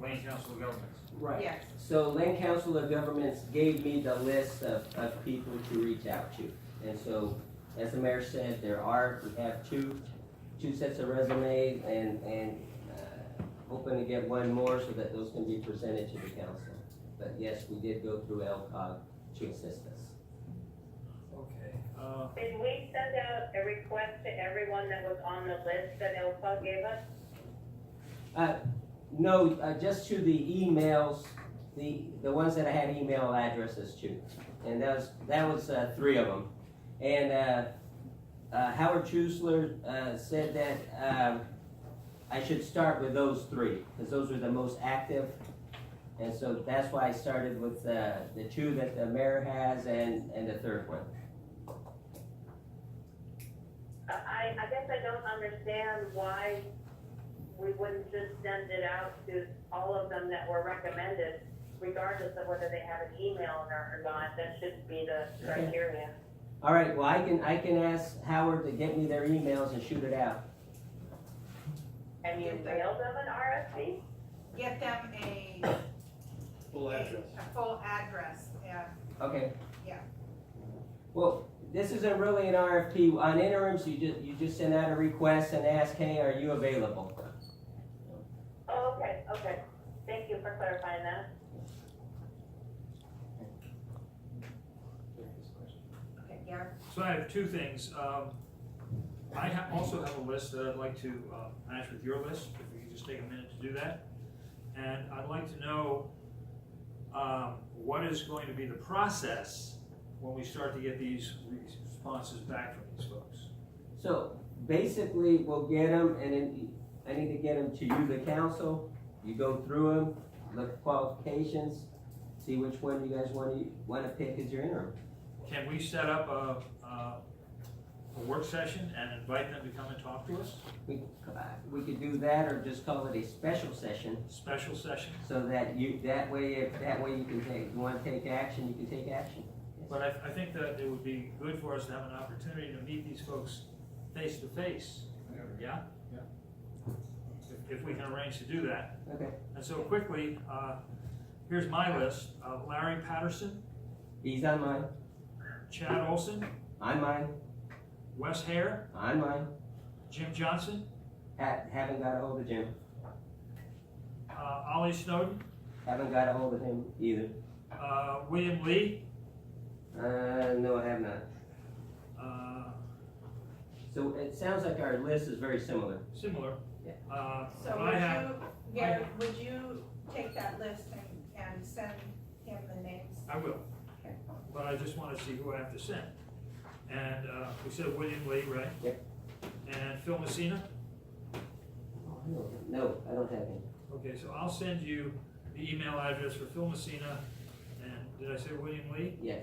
Land Council of Governments. Right. Yes. So Land Council of Governments gave me the list of, of people to reach out to. And so, as the mayor said, there are, we have two, two sets of resumes and, and, uh, hoping to get one more so that those can be presented to the council. But yes, we did go through LCOG to assist us. Okay, uh, Did we send out a request to everyone that was on the list that Ilpa gave us? No, uh, just to the emails, the, the ones that I had email addresses to. And that was, that was, uh, three of them. And, uh, uh, Howard Chusler, uh, said that, um, I should start with those three, because those were the most active. And so that's why I started with, uh, the two that the mayor has and, and the third one. Uh, I, I guess I don't understand why we wouldn't just send it out to all of them that were recommended, regardless of whether they have an email or or not, that should be the Okay. criteria. All right, well, I can, I can ask Howard to get me their emails and shoot it out. And you Yes, sir. mailed them an RFP? Get them a, Full address. a full address, yeah. Okay. Yeah. Well, this isn't really an RFP. On interims, you just, you just send out a request and ask, hey, are you available? Oh, okay, okay. Thank you for clarifying that. Okay, Gary? so I have two things. Um, I ha- also have a list that I'd like to, uh, match with your list, if we could just take a minute to do that. And I'd like to know, um, what is going to be the process when we start to get these responses back from these folks? So basically, we'll get them and then I need to get them to you, the council. You go through them, look at qualifications, see which one you guys want to, want to pick as your interim. Can we set up a, uh, a work session and invite them to come and talk to us? We, uh, we could do that or just call it a special session Special session? so that you, that way, if, that way you can take, you want to take action, you can take action. But I, I think that it would be good for us to have an opportunity to meet these folks face to face, yeah? Yeah. If, if we can arrange to do that. Okay. And so quickly, uh, here's my list, uh, Larry Patterson, He's on mine, Chad Olson, I'm mine. Wes Hare, On mine. Jim Johnson, Ha- haven't got a hold of Jim. uh, Ollie Snowden, Haven't got a hold of him either. uh, William Lee, Uh, no, I have not. uh, So it sounds like our list is very similar. similar. Yeah. Uh, So I have would you, Gary, would you take that list and, and send him the names? I will. Okay. But I just wanna see who I have to send. And, uh, we said William Lee, right? Yep. And Phil Messina? No, I don't have him. Okay, so I'll send you the email address for Phil Messina and, did I say William Lee? Yes.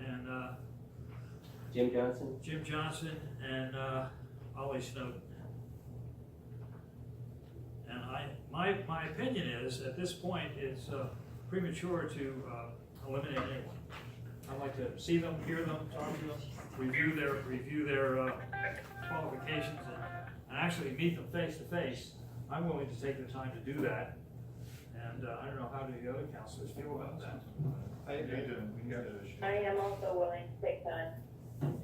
And, uh, Jim Johnson? Jim Johnson and, uh, Ollie Snowden. And I, my, my opinion is, at this point, it's uh, premature to, uh, eliminate anyone. I'd like to see them, hear them, talk to them, review their, review their, uh, qualifications and, and actually meet them face to face. I'm willing to take the time to do that. And, uh, I don't know how do the other counselors feel about that. I, I didn't, we got I it. am also willing to take time.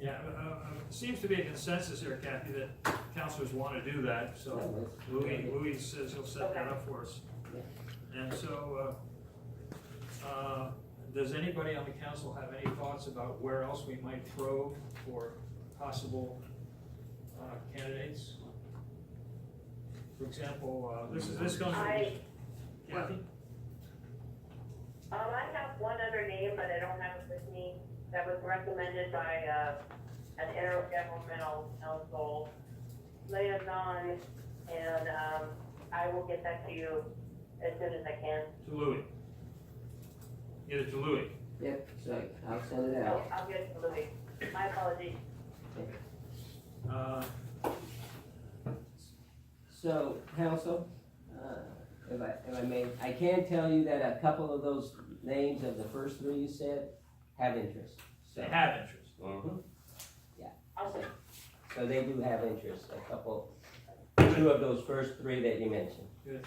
Yeah, uh, uh, it seems to be a consensus here, Kathy, that counselors want to do that, so Louis, Louis says he'll set that up for us. And so, uh, uh, does anybody on the council have any thoughts about where else we might probe for possible uh, candidates? For example, uh, this is, this comes I, from Kathy? Um, I have one other name, but I don't have it with me, that was recommended by, uh, an intergovernmental council later on, and, um, I will get that to you as soon as I can. To Louis. Get it to Louis. Yep, so I'll send it I'll, out. I'll get it to Louis. My apologies. Uh, So, council, uh, if I, if I may, I can tell you that a couple of those names of the first three you said have interest. So, They have interest. Mhm. Awesome. so they do have interest, a couple, two of those first three that you mentioned.